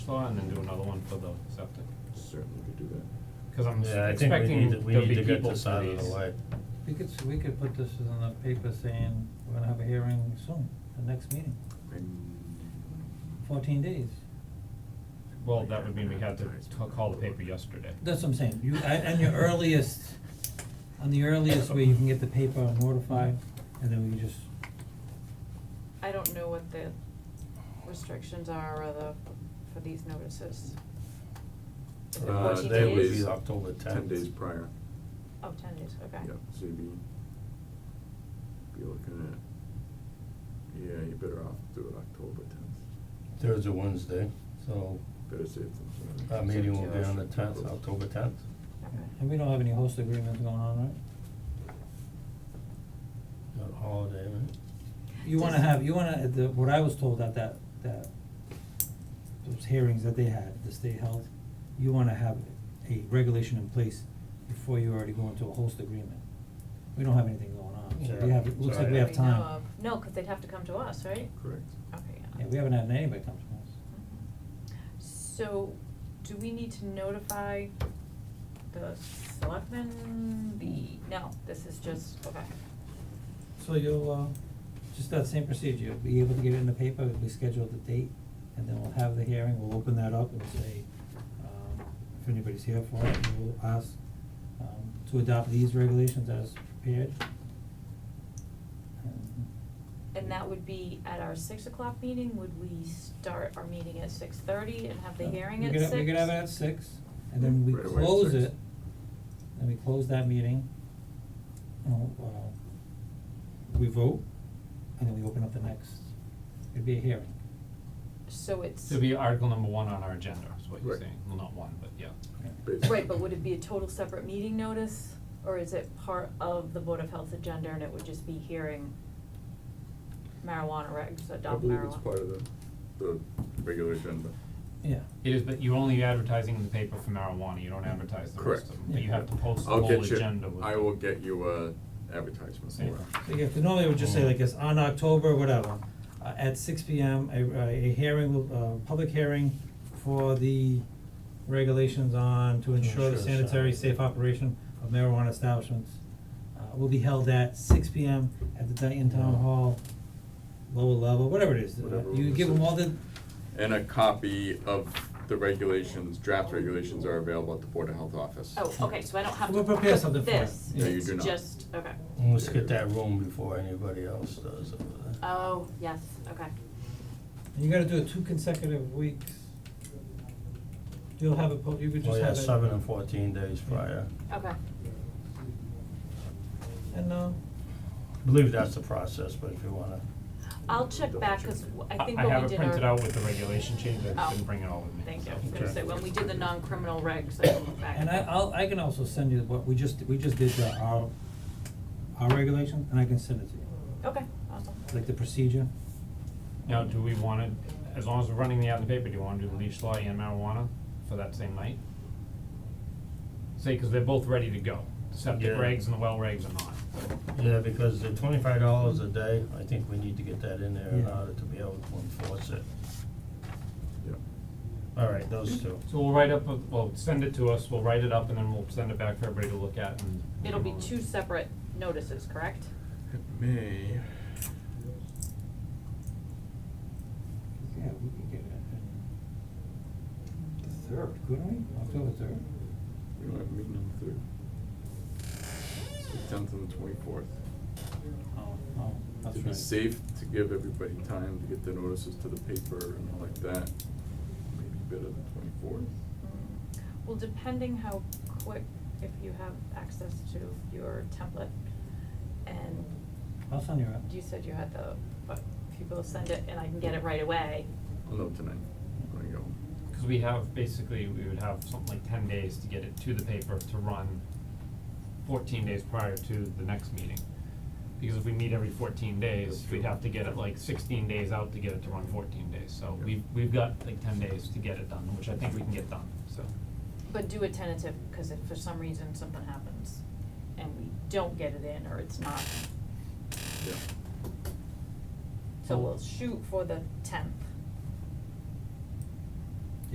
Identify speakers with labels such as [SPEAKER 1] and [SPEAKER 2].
[SPEAKER 1] slot and then do another one for the septic.
[SPEAKER 2] Certainly could do that.
[SPEAKER 1] Cause I'm
[SPEAKER 3] Yeah, I
[SPEAKER 1] s-
[SPEAKER 3] think we
[SPEAKER 1] expecting
[SPEAKER 3] need to, we
[SPEAKER 1] there'll
[SPEAKER 3] need
[SPEAKER 1] be
[SPEAKER 3] to get
[SPEAKER 1] people
[SPEAKER 3] this
[SPEAKER 1] for
[SPEAKER 3] out of
[SPEAKER 1] these.
[SPEAKER 3] the way.
[SPEAKER 4] We could, s- we could put this in the paper saying we're gonna have a hearing soon, the next meeting, fourteen days.
[SPEAKER 1] Well, that would mean we had to ca- call the paper yesterday.
[SPEAKER 4] That's what I'm saying, you, I- and your earliest, on the earliest way you can get the paper notified, and then we just,
[SPEAKER 5] I don't know what the restrictions are or the, for these notices. Is it
[SPEAKER 3] Uh,
[SPEAKER 5] 14
[SPEAKER 3] they would
[SPEAKER 5] days?
[SPEAKER 3] be October
[SPEAKER 2] Ten
[SPEAKER 3] tenth.
[SPEAKER 2] days prior,
[SPEAKER 5] Oh, ten days, okay.
[SPEAKER 2] yeah, so you'd be, be looking at, yeah, you're better off do it October tenth,
[SPEAKER 3] Thursday, Wednesday, so
[SPEAKER 2] better safe than sorry.
[SPEAKER 3] our Uh, meeting will be on the tenth, October tenth.
[SPEAKER 4] and we don't have any host agreements going on, right?
[SPEAKER 3] Not holiday, right?
[SPEAKER 4] You wanna
[SPEAKER 5] Does-
[SPEAKER 4] have, you wanna, the, what I was told at that, that, those hearings that they had, the state held, you wanna have a regulation in place before you already go into a host agreement. We don't have anything going on, so we
[SPEAKER 3] Yeah.
[SPEAKER 4] have, it looks like we
[SPEAKER 3] Sorry.
[SPEAKER 4] have
[SPEAKER 5] know
[SPEAKER 4] time.
[SPEAKER 5] of. No, cause they'd have to come to us, right?
[SPEAKER 2] Correct.
[SPEAKER 5] Okay, yeah.
[SPEAKER 4] Yeah, we haven't had anybody come to us.
[SPEAKER 5] Mm-hmm. So, do we need to notify the selectmen, the, no, this is just, okay.
[SPEAKER 4] So you'll, uh, just that same procedure, you'll be able to get it in the paper, we schedule the date, and then we'll have the hearing, we'll open that up and say, um, if anybody's here for it, we'll ask, um, to adopt these regulations as prepared. And
[SPEAKER 5] And that would be at our six o'clock meeting, would we start our meeting at six thirty and have the hearing
[SPEAKER 4] we
[SPEAKER 5] at
[SPEAKER 4] could
[SPEAKER 5] six?
[SPEAKER 4] have- We could have uh, it at six, and then we
[SPEAKER 2] Right away at
[SPEAKER 4] close
[SPEAKER 2] six.
[SPEAKER 4] it, and we close that meeting. and, uh, we vote, and then we open up the next, it'd be a hearing.
[SPEAKER 5] So it's.
[SPEAKER 1] It'd be article number one on our agenda, is what you're
[SPEAKER 2] Right.
[SPEAKER 1] saying, well, not one, but yeah.
[SPEAKER 2] Basically.
[SPEAKER 5] Right, but would it be a total separate meeting notice, or is it part of the Board of Health agenda and it would just be hearing marijuana regs,
[SPEAKER 2] I
[SPEAKER 5] adopt marijuana?
[SPEAKER 2] believe it's part of the, the regular agenda.
[SPEAKER 4] Yeah.
[SPEAKER 1] It is, but you're only advertising in the paper for marijuana, you don't advertise the rest
[SPEAKER 2] Correct.
[SPEAKER 1] of them, but you have to post the
[SPEAKER 2] I'll
[SPEAKER 1] whole
[SPEAKER 2] get you-
[SPEAKER 1] agenda with.
[SPEAKER 2] I will get you a advertisement
[SPEAKER 1] Yeah.
[SPEAKER 2] for it.
[SPEAKER 4] So yeah, 'cause normally it would just say like it's on October, whatever, uh, at six P M, a, a hearing, will- uh, public hearing for the regulations on to
[SPEAKER 3] To
[SPEAKER 4] ensure the
[SPEAKER 3] ensure sa-
[SPEAKER 4] sanitary safe operation of marijuana establishments. Uh, will be held at six P M at the Dayton Town
[SPEAKER 3] Yeah.
[SPEAKER 4] Hall, lower level, whatever it is, uh,
[SPEAKER 2] Whatever
[SPEAKER 4] you
[SPEAKER 2] it
[SPEAKER 4] give
[SPEAKER 2] is.
[SPEAKER 4] them all the,
[SPEAKER 2] And a copy of the regulations, draft regulations are available at the Board of Health office.
[SPEAKER 5] Oh, okay, so I don't have to
[SPEAKER 4] We'll
[SPEAKER 5] put this,
[SPEAKER 4] prepare something for it.
[SPEAKER 2] No, you
[SPEAKER 5] it's
[SPEAKER 2] do not.
[SPEAKER 5] just, okay,
[SPEAKER 3] And let's get that room before anybody else does over there.
[SPEAKER 5] oh, yes, okay,
[SPEAKER 4] you gotta do it two consecutive weeks. You'll have it, po- you could
[SPEAKER 3] Well,
[SPEAKER 4] just
[SPEAKER 3] Oh, yeah,
[SPEAKER 4] have it.
[SPEAKER 3] seven and fourteen days prior.
[SPEAKER 5] okay,
[SPEAKER 4] And, uh,
[SPEAKER 3] I believe that's the process, but if you wanna,
[SPEAKER 5] I'll check back, cause w- I think
[SPEAKER 1] I
[SPEAKER 5] when we
[SPEAKER 1] have
[SPEAKER 5] did
[SPEAKER 1] it
[SPEAKER 5] our.
[SPEAKER 1] printed out with the regulation change, I
[SPEAKER 5] Oh.
[SPEAKER 1] just didn't bring it all with me.
[SPEAKER 5] Thank
[SPEAKER 1] so.
[SPEAKER 5] you, I was gonna
[SPEAKER 3] Okay.
[SPEAKER 5] say, when we did the non-criminal regs, I looked back.
[SPEAKER 4] And I, I'll, I can also send you what, we just, we just did the, our, our regulation, and I can send it to you,
[SPEAKER 5] Okay, awesome.
[SPEAKER 4] like the procedure.
[SPEAKER 1] Now, do we wanna, as long as we're running the ad in the paper, do you wanna do the leash law and marijuana for that same night? Say, cause they're both ready to go, The septic
[SPEAKER 3] Yeah.
[SPEAKER 1] regs and the well regs are not.
[SPEAKER 3] yeah, because the twenty-five dollars a day, I think we need to get that in there in
[SPEAKER 4] Yeah.
[SPEAKER 3] order to be able to enforce it.
[SPEAKER 2] Yeah.
[SPEAKER 3] Alright, those two.
[SPEAKER 1] So we'll write up, a- well, send it to us, we'll write it up, and then we'll send it back for everybody to look at and.
[SPEAKER 5] It'll be two separate notices, correct?
[SPEAKER 2] It may,
[SPEAKER 4] Yeah, we can get it in the third, couldn't we? October third?
[SPEAKER 2] we don't have a meeting on the third. It's the tenth and the twenty-fourth.
[SPEAKER 4] Oh, oh, that's
[SPEAKER 2] It'd
[SPEAKER 4] right.
[SPEAKER 2] be safe to give everybody time to get the notices to the paper and all like that, maybe better than twenty-fourth.
[SPEAKER 5] Well, depending how quick, if you have access to your template, and
[SPEAKER 4] I'll send you out.
[SPEAKER 5] you said you had the, but if you both send it and I can get it right away,
[SPEAKER 2] I'll know tonight, when I go.
[SPEAKER 1] Cause we have, basically, we would have something like ten days to get it to the paper to run fourteen days prior to the next meeting. Because if we meet every fourteen days,
[SPEAKER 2] That's true.
[SPEAKER 1] we'd have to get it like sixteen days out to get it to run fourteen days, so
[SPEAKER 2] Yeah.
[SPEAKER 1] we've, we've got like ten days to get it done, which I think we can get done, so.
[SPEAKER 5] but do a tentative, cause if for some reason something happens and we don't get it in or it's not,
[SPEAKER 2] Yeah.
[SPEAKER 5] so we'll shoot for the tenth.